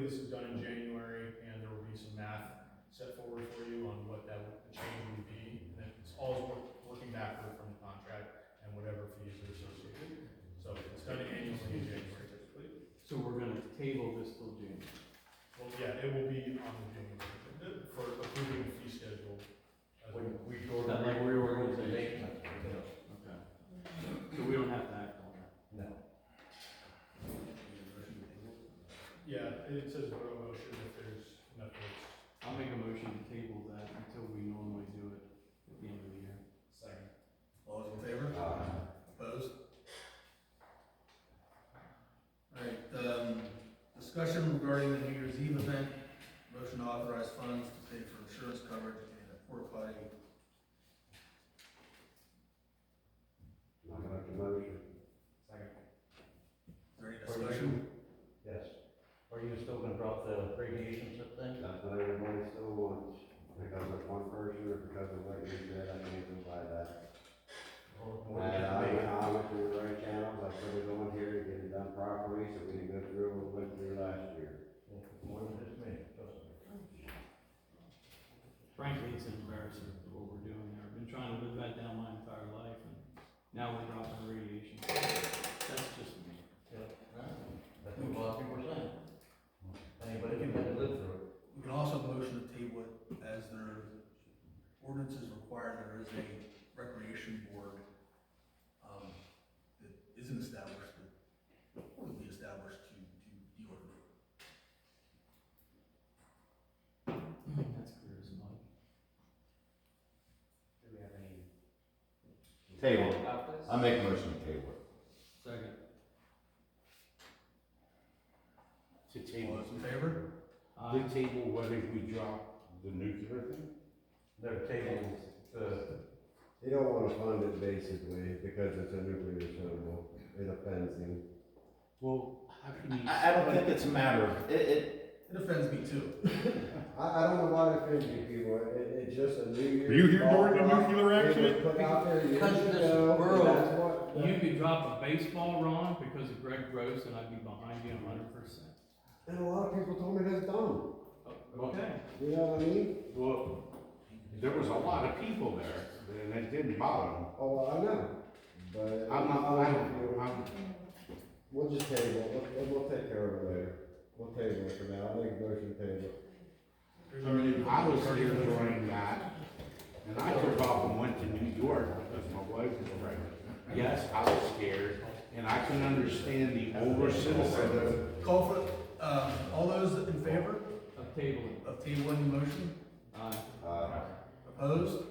this is done in January, and there will be some math set forward for you on what that, would- the change would be, and then it's all wor- working backward from the contract and whatever fees are associated. So it's done annually in January typically. So we're gonna table this till June. Well, yeah, it will be on the June agenda for approving the fee schedule. as well. When we go Is to that like reorganization? reorganization. Okay. So we don't have to act on that. No. Yeah, it says vote on motion if there's enough votes. I'll make a motion to table that until we normally do it at the end of the year. Second. All those in favor? Opposed? All right, um, discussion regarding the New Year's Eve event, motion to authorize funds to pay for insurance coverage and a porta potty. Not gonna have to motion. Is there any discussion? Yes. Are you still gonna drop the radiation stuff thing? That's what everybody still wants, because of one person or because of what you said, I can't even buy that. Or- And I, I went through the right channels, I put it on here to get it done properly, so we didn't go through what we went through last year. More than just me, Frankly, it's embarrassing what we're doing there. I've been trying to live that down my entire life and now we're dropping radiation. That's just me. That's what a lot of people are saying. Anybody can live through it. We can also motion to table it as their ordinances require, there is a recreation board, um, that isn't established, but would be established to, to deal with it. That's clear as mud. Do we have any? Table. I make a motion to table. Second. To All those in favor? Aye. table whether we drop the nuclear thing? They're taking the. You don't wanna fund it basically, because it's a nuclear terminal, it offends them. Well, how can you? I, I don't think it's a matter of, it, it, It offends me too. I, I don't know why they're offending people, it, it's just a New Year's. Were you here ball during the drop. nuclear It was accident? Put out there years Because of this ago, and world. that's what. You could drop a baseball, Ron, because of Greg Gross, and I'd be behind you a hundred percent. And a lot of people told me that's dumb, Okay. you know what I mean? well, there was a lot of people there, and it didn't bother them. Oh, I know, but. I'm not, I don't, I'm, We'll just table, it. we'll, we'll take care of it later, we'll table it for now, I'll make a motion to table. There's already- I was here during that, and I took off and went to New York because my wife was pregnant. Yes, I was scared, and I can understand the older citizens. Call for, uh, all those in favor Of tabling. of tabling the motion? Aye. Uh, Opposed?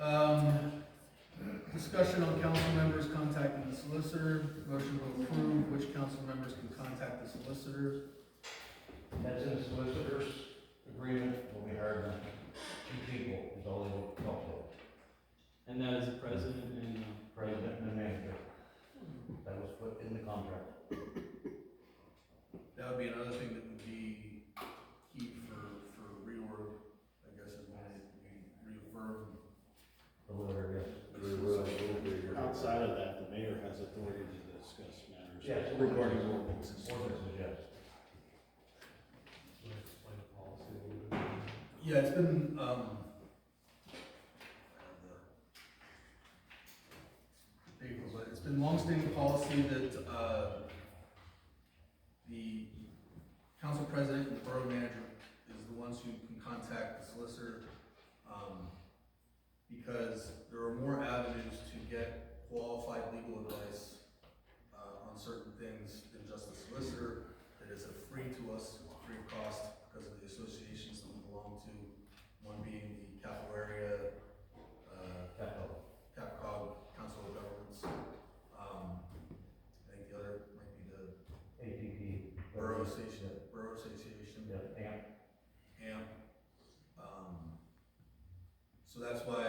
Um, discussion on council members contacting the solicitor, motion to approve which council members can contact the solicitor. That's in the solicitor's agreement, when we hired them, two people is all they talked to, And that is the president and the president and manager. That was put in the contract. That would be another thing that would be key for, for reorg, I guess, is when we reaffirm Outside of that, the mayor has authority to discuss matters. Yes. Regarding ordinances. Ordinances, yes. We'll explain the policy a little bit. Yeah, it's been, um, April, but it's been longstanding policy that, uh, the council president and the borough manager is the ones who can contact the solicitor, um, because there are more avenues to get qualified legal advice, uh, on certain things than just the solicitor that is a free to us, free of cost, because of the associations that we belong to, one being the capital area, uh, CapCog, Council of Governments. Um, I think the other might be the APP. Borough Association, Borough Association. Yeah, AMP. AMP. Um, so that's why Um,